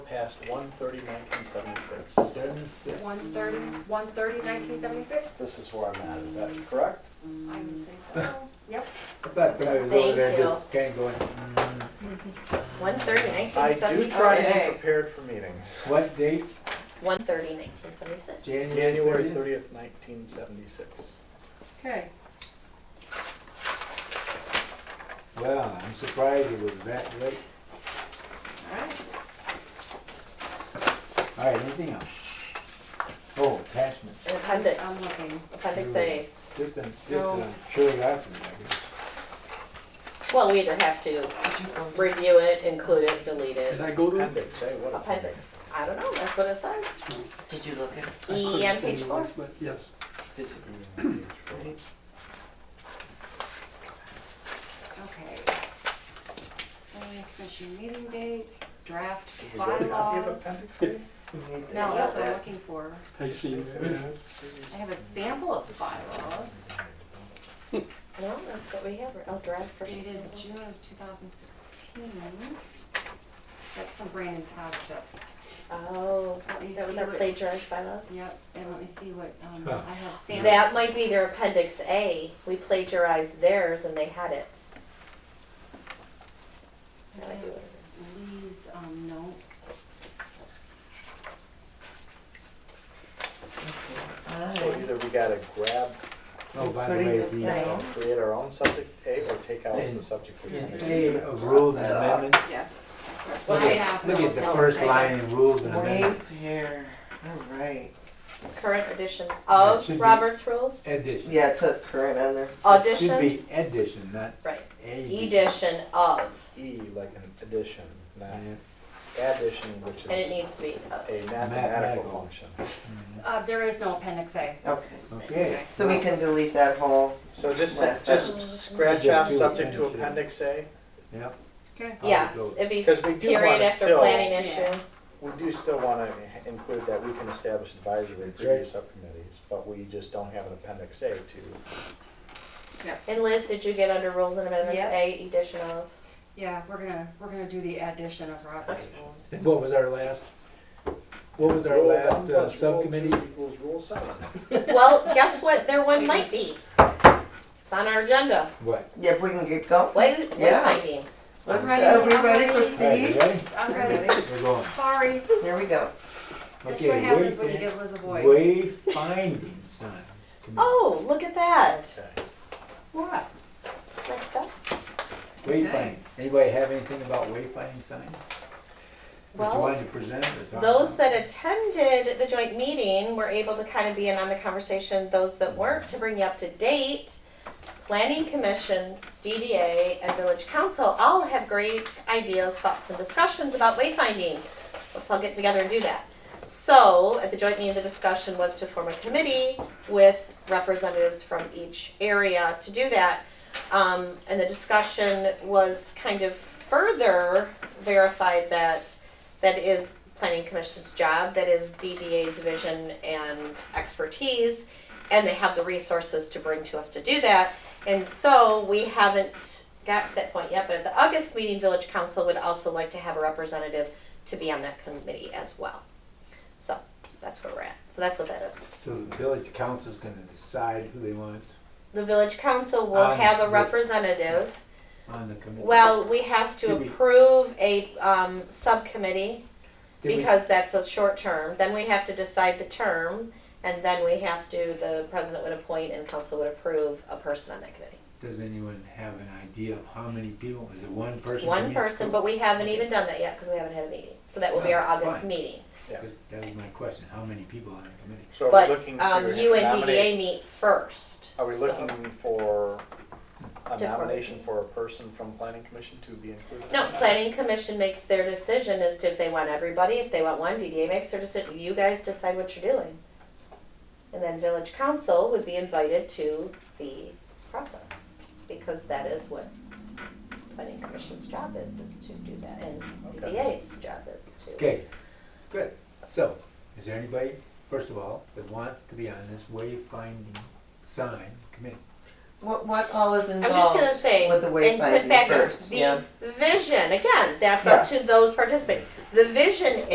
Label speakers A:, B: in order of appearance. A: passed 1/30/1976.
B: Seventy-six.
C: 130, 130, 1976?
A: This is where I'm at, is that correct?
C: I would say so. Yep.
B: I thought somebody was over
D: Thank
B: there
D: you.
B: just kind of going, mm,
D: One thirty,
A: I
D: nineteen
A: do try to be
D: seventy-six.
A: prepared for meetings.
B: what date?
D: One thirty, nineteen seventy-six.
B: January
A: January
B: 30th?
A: 30th, 1976.
C: Okay.
B: Well, I'm surprised it was that late.
D: All right.
B: All right, anything else? Oh, attachment,
D: And appendix,
C: I'm looking.
D: appendix A.
B: just a, just
D: No.
B: a curiosity, I guess.
D: Well, we either have to review it, include it, delete it.
E: Did I go to it?
A: Appendix, hey, what?
D: Appendix. I don't know, that's what it says.
F: Did you look at,
D: E on page four.
E: But Yes.
F: did you?
C: Okay. Planning Commission meeting dates, draft
A: You wrote it down. You have
C: bylaws.
A: appendix A?
C: No, that's what I'm looking for.
E: I see.
C: I have a sample of the bylaws
D: No, that's what we have. Oh, draft versus.
C: dated June of 2016. That's from Brandon Towships.
D: Oh,
C: Let me
D: that was
C: see
D: our
C: what-
D: plagiarized bylaws.
C: Yep, and let me see what, um,
B: Huh.
C: I have sample.
D: That might be their appendix A. We plagiarized theirs and they had it. That might be what it is.
C: Lee's, um, notes.
A: So either we gotta grab,
B: Oh, by the
F: Putting
B: way,
F: this
B: the,
D: down.
B: uh,
A: create our own subject A or take out the
B: And-
A: subject we
B: in
A: created?
B: A of rules and amendments,
C: Yeah.
B: look at, look at the first line in rules and
F: Wait
B: amendments
F: there, all right.
D: Current edition
B: It
D: of
B: should be-
D: Robert's Rules.
B: edition.
F: Yeah, it says current on there.
B: It Should
D: Audition,
B: be edition, not
D: right.
B: edition.
D: Edition of,
A: E, like an addition, not
B: Uh, Yeah.
A: addition, which
D: and it
A: is
D: needs to be uh, of.
A: a mathematical
B: Mathematical.
A: function.
C: Uh, there is no appendix A.
F: Okay,
B: Mm, Okay,
F: so we can delete that whole,
A: So just,
F: Last
A: just scratch off
B: Yeah.
A: subject to appendix A.
B: yep,
C: Okay.
B: I'll go.
D: Yes, it'd be
A: 'Cause we do
D: period
A: wanna
D: after
A: still-
D: planning
C: Yeah.
D: issue.
A: We do still want to include that we can establish advisory and review subcommittees, but we just don't have an appendix A to,
D: And Liz, did you get under rules and amendments,
C: Yep.
D: A edition of?
C: Yeah, we're gonna, we're gonna do the addition of Robert's rules.
B: what was our last, what was our
A: Rule
B: last
A: one plus
B: uh,
A: rule two
B: subcommittee?
A: equals rule seven.
D: Well, guess what, there one might be. It's on our agenda,
B: What?
F: yeah, if we can get going.
D: way,
F: Yeah.
D: wayfinding.
F: Let's,
C: ready,
F: are we
C: I'm
F: ready
C: ready.
F: for
B: All right, you
F: C?
B: ready?
C: I'm ready.
B: We're going.
C: Sorry.
F: Here we go.
C: That's
B: Okay,
C: what
B: wait
C: happens when you
B: a
C: give Liz a voice.
B: Wayfinding signs. Come on.
D: Oh, look at that,
A: Okay.
C: What?
D: next up.
B: Wayfinding. Anybody have anything about wayfinding signs? That you
D: Well,
B: wanted to present or talk
D: those
B: about?
D: that attended the joint meeting were able to kind of be in on the conversation, those that weren't, to bring you up to date. Planning Commission, DDA, and Village Council all have great ideas, thoughts, and discussions about wayfinding. Let's all get together and do that. So, at the joint meeting, the discussion was to form a committee with representatives from each area to do that. Um, and the discussion was kind of further verified that that is Planning Commission's job, that is DDA's vision and expertise, and they have the resources to bring to us to do that. And so we haven't got to that point yet, but at the August meeting, Village Council would also like to have a representative to be on that committee as well. So that's where we're at. So that's what that is.
B: So the village council's gonna decide who they want
D: The Village Council will
B: Um,
D: have
B: yes.
D: a representative.
B: on the committee.
D: Well, we have to
B: Did we-
D: approve a um, subcommittee
B: Did we-
D: Because that's a short term, then we have to decide the term, and then we have to, the president would appoint and council would approve a person on that committee.
B: Does anyone have an idea of how many people? Is it one person? from
D: One
B: each
D: person,
B: group?
D: but we haven't even done that yet, because we haven't had a meeting, so that will be our
B: Yeah,
D: August
B: Oh, fine.
D: meeting.
B: That was my question, how many people on the committee?
A: So are
D: But,
A: we looking to
D: um, you and DDA
A: nominate,
D: meet first.
A: are we
D: so-
A: looking for a
D: Different.
A: nomination for a person from planning commission to be included?
D: No, planning commission makes their decision as to if they want everybody, if they want one, DDA makes their decision, you guys decide what you're doing. And then village council would be invited to the process, because that is what planning commission's job is, is to do that, and
A: Okay.
D: DDA's job is to.
B: Okay, good. So, is there anybody, first of all, that wants to be on this wayfinding sign committee?
F: What, what all is
D: I was just
F: involved
D: gonna say,
F: with the
D: and put
F: wayfinding
D: back
F: first? Yeah.
D: the vision, again, that's up to those participating. The vision